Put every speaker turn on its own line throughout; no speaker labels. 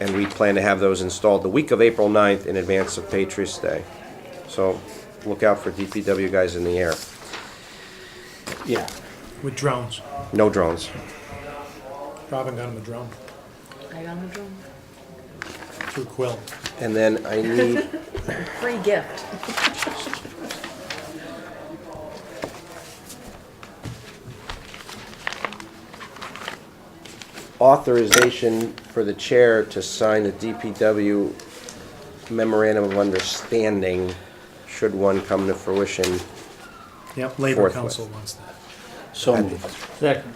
and we plan to have those installed the week of April 9th in advance of Patriots Day. So look out for DPW guys in the air.
Yeah.
with drones.
No drones.
Robin got him a drone
I got a drum.
through Quill.
And then I need,
Free gift.
authorization for the chair to sign the DPW memorandum of understanding should one come to fruition.
Yep, Labor
Forthwith.
Council wants that.
So moved.
Second.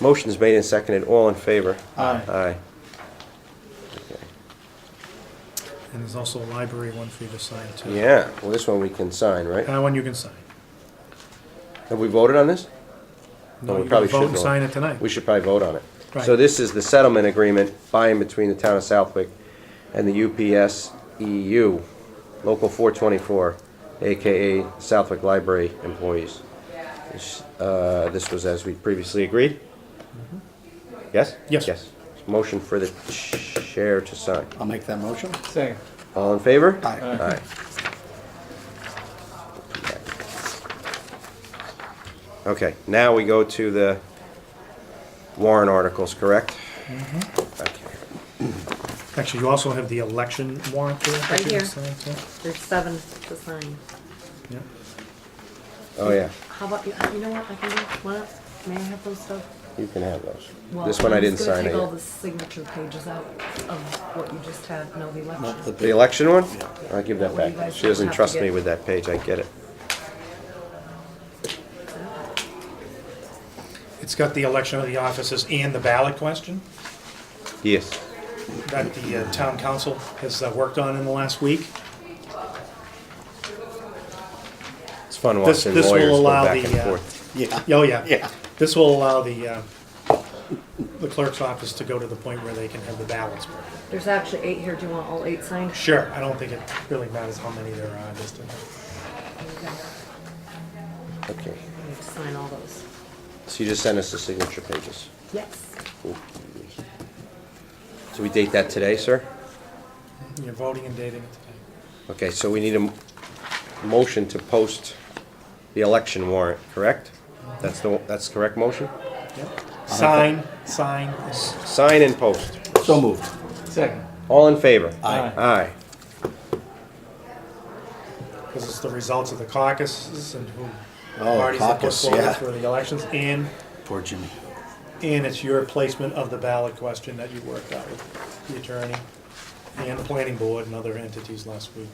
Motion's made and seconded, all in favor?
Aye.
Aye.
And there's also a library one for you to sign too.
Yeah, well, this one we can sign, right?
That one you can sign.
Have we voted on this?
No,
we
you
probably
gotta
should
vote and
vote.
sign it tonight.
We should probably vote on it. So
Right.
this is the settlement agreement by and between the town of Southwick and the UPS EU, E Local 424, AKA Southwick Library employees. This- uh, This was as we previously agreed? Yes?
Mm-hmm. Yes.
Motion for the chair to sign.
I'll make that motion.
Second.
All in favor?
Aye.
Aye. Okay, now we go to the Warren articles, correct?
Mm-hmm.
Okay.
Actually, you also have the election warrant there. that
Right
you can
here.
sign, too.
There's seven to sign.
Yeah.
Oh, yeah,
How about you? You know what? I can do one. of- May I have those stuff?
you can have those.
Well,
This one I
I'm
didn't
just gonna
sign it
Take all the
yet.
signature pages out of what you just had. No, the election.
Not the
The
big-
election one? I'll give that
That way you
back.
guys
She
don't
doesn't
have to
trust me
get-
with that page, I get it.
It's got the election of the offices and the ballot question
Yes.
that the uh, town council has uh, worked on in the last week.
It's fun
This-
watching
this will
lawyers go
allow
back
the,
and
uh,
forth.
Yeah.
Oh, yeah.
Yeah.
This will allow the, uh, the clerk's office to go to the point where they can have the ballots.
There's actually eight here. Do you want all eight signed?
Sure, I don't think it really matters how many there are, just uh, to-
Okay,
You have to sign all those.
so you just sent us the signature pages.
Yes.
So we date that today, sir?
you're voting and dating it today.
Okay, so we need a m- motion to post the election warrant, correct? That's the, that's the correct motion?
Sign, sign. is-
Sign and post.
So moved.
Second.
All in favor?
Aye.
Aye.
Because it's the results of the caucuses and who
Oh,
parties that put
caucus,
forward
yeah.
for the elections, and,
Poor Jimmy.
and it's your placement of the ballot question that you worked out with the attorney and the planning board and other entities last week.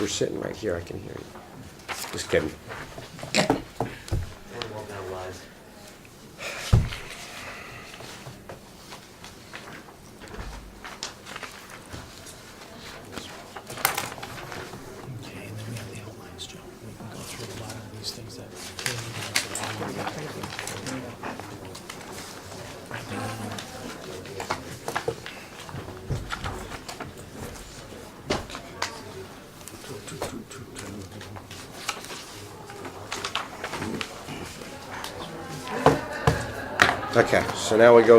We're sitting right here, I can hear you. Just kidding.
Okay, and then we have the outlines, Joe. We can go through a lot of these things that.
Okay, so now we go